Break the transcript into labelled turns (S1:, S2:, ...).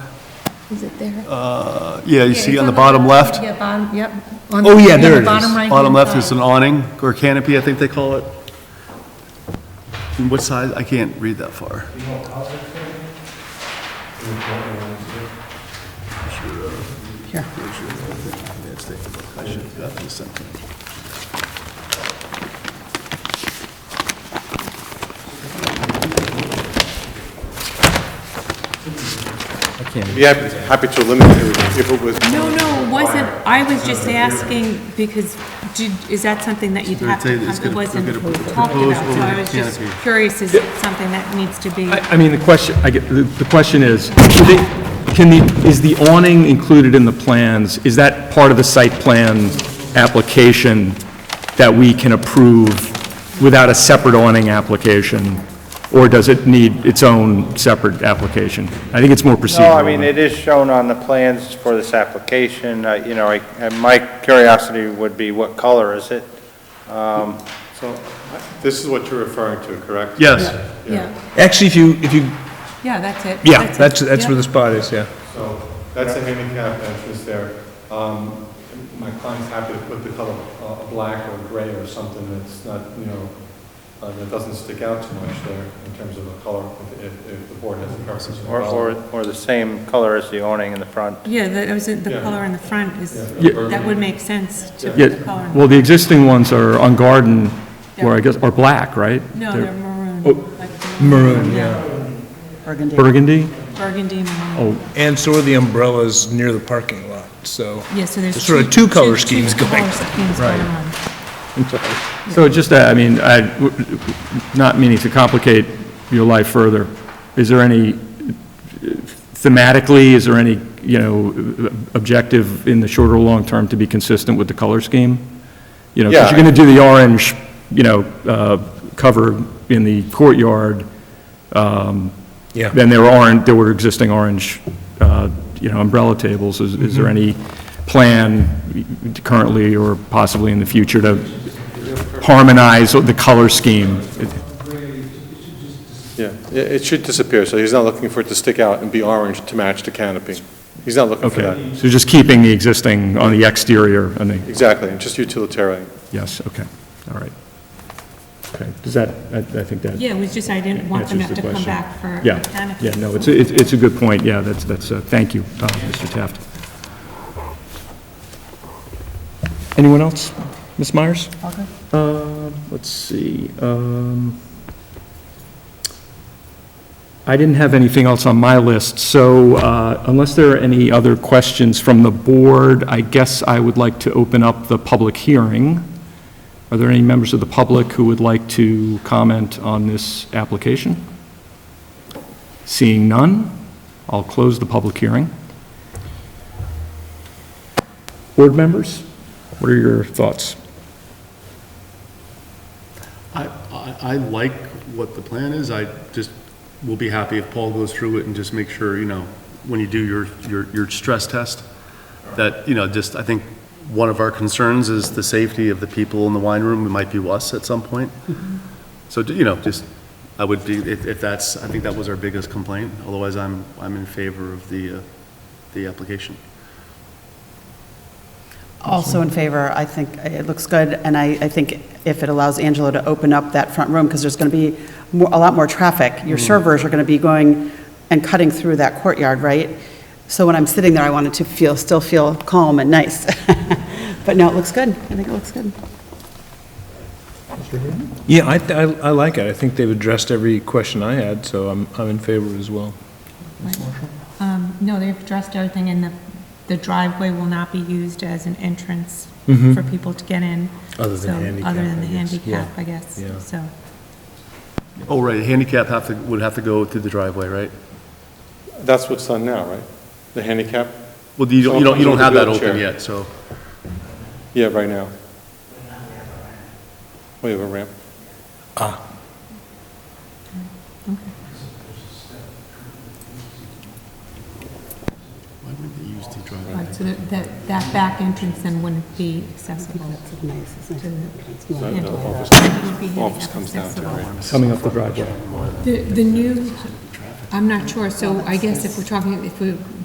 S1: Is it there?
S2: Yeah, you see on the bottom left?
S1: Yeah, bottom, yep. On
S2: Oh,
S1: the-
S2: yeah,
S1: on
S2: there
S1: the
S2: it is.
S1: Bottom right.
S2: Bottom left is an awning or canopy, I think they call it. And what size? I can't read that far.
S1: Here.
S2: I should have gotten this something.
S3: Be happy happy to eliminate it if it was,
S4: No, no, it wasn't, I was just asking, because did, is that something that you'd
S2: They're
S4: have to,
S2: saying it's
S4: come- it
S2: gonna- they're
S4: wasn't
S2: gonna put-
S4: talked
S2: propose
S4: about, so
S2: over
S4: I
S2: the
S4: was just
S2: canopy.
S4: curious, is it something that needs to be?
S5: I I mean, the question, I get, the the question is, they- can the, is the awning included in the plans? Is that part of the site plan application that we can approve without a separate awning application? Or does it need its own separate application? I think it's more procedural.
S6: No, I mean, it is shown on the plans for this application, Uh, you know, I- and my curiosity would be what color is it?
S3: so, this is what you're referring to, correct?
S2: Yes,
S4: Yeah,
S7: Actually, if you, if you,
S4: yeah, that's it.
S7: yeah, that's,
S4: it,
S7: that's
S4: yeah.
S7: where the spot is, yeah.
S3: So, that's a handicap entrance there. Um, my client's happy to put the color, uh, black or gray or something that's not, you know, uh, that doesn't stick out too much there in terms of a color, if, if- if the board has a preference. for
S6: Or,
S3: color.
S6: or, or the same color as the awning in the front?
S4: Yeah, that was, in- the
S3: Yeah.
S4: color in the front is,
S3: Yeah.
S4: that would make sense to
S5: Yeah,
S4: put the color. in-
S5: well, the existing ones are on garden, or I guess, are black, right?
S4: No, they're maroon. like
S7: oh, Maroon,
S5: Burgundy?
S4: Burgundy maroon.
S5: Oh,
S7: And so are the umbrellas near the parking lot, so.
S4: Yeah, so there's.
S7: Sort of two color
S4: two-
S7: schemes
S4: two
S7: going.
S4: color schemes going on.
S5: So just, uh, I mean, I, not meaning to complicate your life further, is there any, thematically, is there any, you know, objective in the short or long term to be consistent with the color scheme? You know, because
S3: Yeah.
S5: you're going to do the orange, you know, uh, cover in the courtyard,
S7: Yeah.
S5: then there aren't, there were existing orange, uh, you know, umbrella tables. Is is there any plan currently or possibly in the future to harmonize the color scheme?
S3: Yeah, Yeah, it should disappear, so he's not looking for it to stick out and be orange to match the canopy. He's not looking for
S5: Okay,
S3: that.
S5: so just keeping the existing on the exterior and the,
S3: Exactly, just utilitarian.
S5: yes, okay, all right. Okay, does that, I I think that
S4: Yeah, it was just, I didn't want them to have
S5: answers the
S4: to come
S5: question.
S4: back for a
S5: Yeah,
S4: canopy.
S5: yeah, no, it's, it's it's a good point, yeah, that's, that's, uh, thank you, uh, Mr. Taft. Anyone else? Ms. Myers? Uh, Let's see. um, I didn't have anything else on my list, so uh, unless there are any other questions from the board, I guess I would like to open up the public hearing. Are there any members of the public who would like to comment on this application? Seeing none, I'll close the public hearing. Board members, what are your thoughts?
S2: I, I, I like what the plan is, I just will be happy if Paul goes through it and just make sure, you know, when you do your, your, your stress test, that, you know, just, I think one of our concerns is the safety of the people in the wine room, it might be us at some point. So, you know, just, I would be, if, if that's, I think that was our biggest complaint, otherwise I'm, I'm in favor of the, uh, the application.
S8: Also in favor, I think it looks good, and I, I think if it allows Angelo to open up that front room, because there's going to be more, a lot more traffic. Your servers are going to be going and cutting through that courtyard, right? So when I'm sitting there, I wanted to feel, still feel calm and nice. But no, it looks good. I think it looks good.
S7: Yeah, I, th- I I like it. I think they've addressed every question I had, so I'm, I'm in favor as well.
S4: Um, No, they've addressed everything, and the the driveway will not be used as an entrance for people to get in.
S7: Mm-hmm. Other than
S4: So,
S7: handicap,
S4: Other than the
S7: I guess. Yeah.
S4: handicap, I guess,
S7: Yeah.
S4: so. uh,
S2: Oh, right, handicap have to, would have to go through the driveway, right?
S3: That's what's done now, right? The handicap?
S2: Well, you don't, you don't, you don't have that open
S3: Wheelchair.
S2: yet, so.
S3: Yeah, right now. We have a ramp.
S2: Why wouldn't they use the driveway?
S4: Right, so that- that, that back entrance then wouldn't be accessible to the handicap. It would be
S3: Office
S4: handicap
S3: comes down to,
S4: accessible.
S3: right?
S5: Coming up the driveway.
S4: The, the new, I'm not sure, so I guess if we're talking, if we